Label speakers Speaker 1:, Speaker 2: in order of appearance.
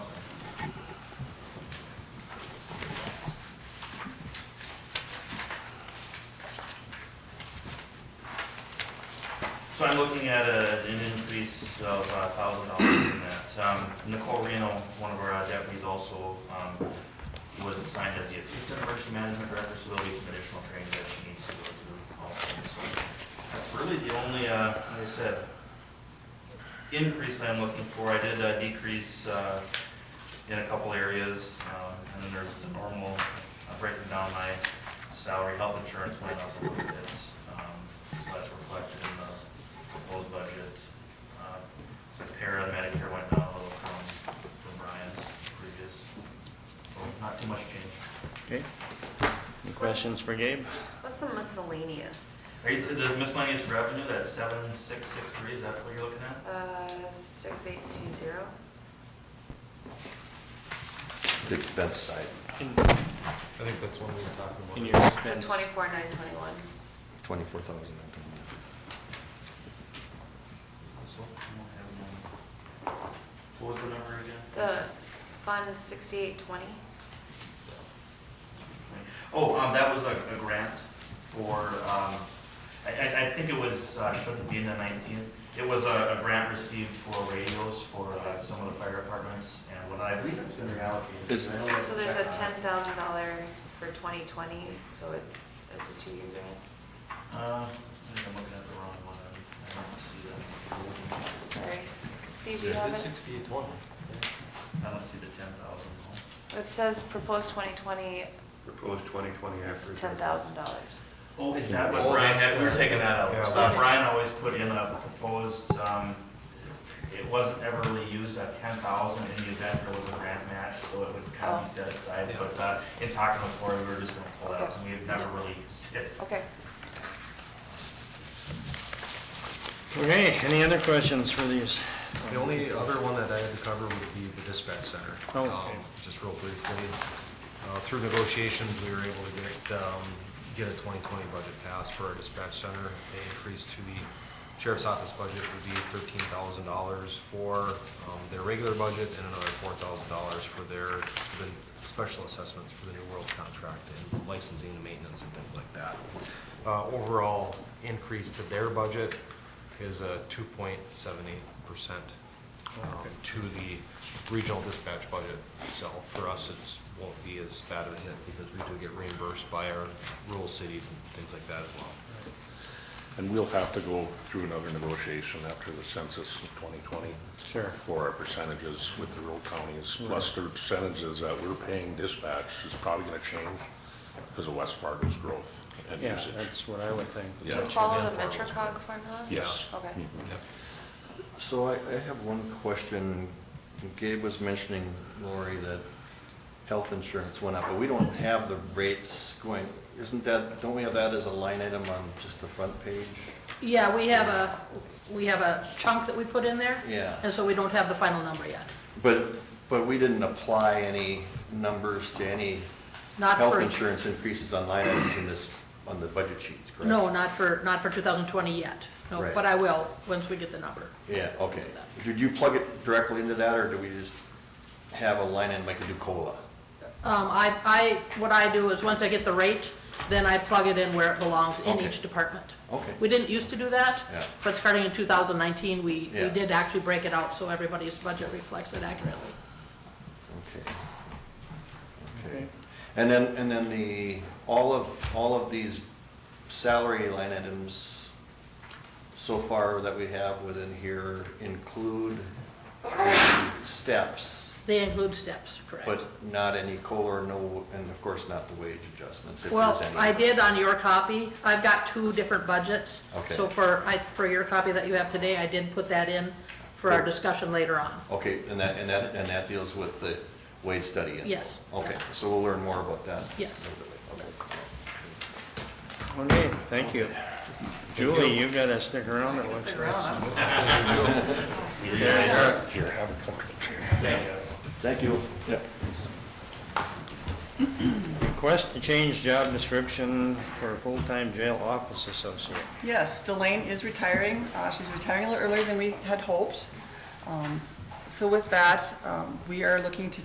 Speaker 1: So I'm looking at a, an increase of a thousand dollars in that. Um, Nicole Reno, one of our uh, deputies also, um, was assigned as the assistant emergency management director, so there'll be some additional training that she needs to go through also. So That's really the only, uh, like I said, increase I'm looking for. I did uh, decrease, uh, in a couple areas, um, and then there's the normal, uh, breaking down my salary, health insurance went up a little bit. Um, so that's reflected in the proposed budget. Uh, So para Medicare went down a little from, from Brian's previous, so not too much change.
Speaker 2: Okay. Any questions for Gabe?
Speaker 3: What's the miscellaneous?
Speaker 1: Are you, the miscellaneous revenue, that seven, six, six, three, is that what you're looking at?
Speaker 3: Uh, six eight two zero?
Speaker 4: the expense side,
Speaker 5: I think that's one we were talking about.
Speaker 2: In your
Speaker 3: So
Speaker 2: expense.
Speaker 3: twenty-four nine twenty-one.
Speaker 4: twenty-four thousand.
Speaker 5: This one?
Speaker 1: I don't have it on. What was the number again?
Speaker 3: The fund sixty-eight twenty?
Speaker 1: Oh, um, that was a, a grant for, um, I, I, I think it was, uh, shouldn't be in the nineteenth. It was a, a grant received for radios for, uh, some of the fire departments, and what I believe it's been reallocated.
Speaker 4: Is-
Speaker 1: I know that's-
Speaker 3: So there's a ten thousand dollar for twenty twenty, so it, that's a two-year grant.
Speaker 1: Uh, I think I'm looking at the wrong one, I don't see that.
Speaker 3: Sorry. Steve, do you
Speaker 5: Yeah,
Speaker 3: have
Speaker 5: it's
Speaker 3: it?
Speaker 5: sixty-eight twenty.
Speaker 1: I don't see the ten thousand.
Speaker 3: It says proposed twenty twenty
Speaker 4: Proposed twenty-twenty
Speaker 3: is ten thousand dollars.
Speaker 1: Oh, is that what
Speaker 5: Oh,
Speaker 1: Brian
Speaker 5: that's
Speaker 1: had, we were
Speaker 5: the-
Speaker 1: taking that out.
Speaker 5: Yeah.
Speaker 1: Uh, Brian always put in a proposed, um, it wasn't ever really used at ten thousand in the event there was a grant match, so it would kind of be
Speaker 5: Oh.
Speaker 1: set aside,
Speaker 5: Yeah.
Speaker 1: but, uh, in talking with Lori, we were just gonna pull that, and we have never really used it.
Speaker 3: Okay.
Speaker 2: Okay, any other questions for these?
Speaker 5: The only other one that I had to cover would be the dispatch center.
Speaker 2: Oh,
Speaker 5: Um,
Speaker 2: okay.
Speaker 5: Just real briefly, uh, through negotiations, we were able to get, um, get a twenty-twenty budget passed for our dispatch center. They increased to the sheriff's office budget would be thirteen thousand dollars for, um, their regular budget and another four thousand dollars for their, for the special assessments for the New World contract and licensing and maintenance and things like that. Uh, overall increase to their budget is a two point seven eight percent um, to the regional dispatch budget itself. For us, it's, won't be as bad a hit because we do get reimbursed by our rural cities and things like that as well.
Speaker 6: And we'll have to go through another negotiation after the census in 2020
Speaker 2: Sure. Mm-hmm.
Speaker 6: for our percentages with the rural counties, plus the percentages that we're paying dispatch is probably going to change because of West Fargo's growth and
Speaker 2: Yeah,
Speaker 6: usage.
Speaker 2: that's what I would think.
Speaker 3: Do you
Speaker 6: Yeah.
Speaker 3: follow the MetroCog formula?
Speaker 6: Yes. Mm-hmm.
Speaker 3: Okay.
Speaker 4: So I, I have one question. Gabe was mentioning, Lori, that health insurance went up, but we don't have the rates going, isn't that, don't we have that as a line item on just the front page?
Speaker 7: Yeah, we have a, we have a chunk that we put in there.
Speaker 4: Yeah.
Speaker 7: And so we don't have the final number yet.
Speaker 4: But, but we didn't apply any numbers to any
Speaker 7: Not
Speaker 4: health
Speaker 7: for-
Speaker 4: insurance increases on line items in this, on the budget sheets, correct?
Speaker 7: No, not for, not for 2020 yet. No,
Speaker 4: Right.
Speaker 7: but I will, once we get the number.
Speaker 4: Yeah, okay. Did you plug it directly into that, or do we just have a line item like we do COLA?
Speaker 7: Um, I, I, what I do is, once I get the rate, then I plug it in where it belongs in
Speaker 4: Okay.
Speaker 7: each department.
Speaker 4: Okay.
Speaker 7: We didn't used to do that.
Speaker 4: Yeah.
Speaker 7: But starting in 2019, we, we
Speaker 4: Yeah.
Speaker 7: did actually break it out, so everybody's budget reflects it accurately.
Speaker 4: Okay. Okay. And then, and then the, all of, all of these salary line items so far that we have within here include the steps,
Speaker 7: They include steps, correct?
Speaker 4: but not any COLA, or no, and of course not the wage adjustments, if there's
Speaker 7: Well,
Speaker 4: any.
Speaker 7: I did on your copy, I've got two different budgets.
Speaker 4: Okay.
Speaker 7: So for, I, for your copy that you have today, I did put that in for our
Speaker 4: Good.
Speaker 7: discussion later on.
Speaker 4: Okay, and that, and that, and that deals with the wage study? and-
Speaker 7: Yes.
Speaker 4: Okay, so we'll learn more about that?
Speaker 7: Yes.
Speaker 4: Okay.
Speaker 2: Okay, thank you. Julie, you've got to stick around it looks
Speaker 3: Stick
Speaker 2: like.
Speaker 3: around.
Speaker 6: Here, have a comfortable chair.
Speaker 1: Thank you.
Speaker 4: Thank you. Yeah.
Speaker 2: Request to change job description for a full-time jail office associate.
Speaker 8: Yes, Delane is retiring. Uh, She's retiring a little earlier than we had hoped. Um, So with that, um, we are looking to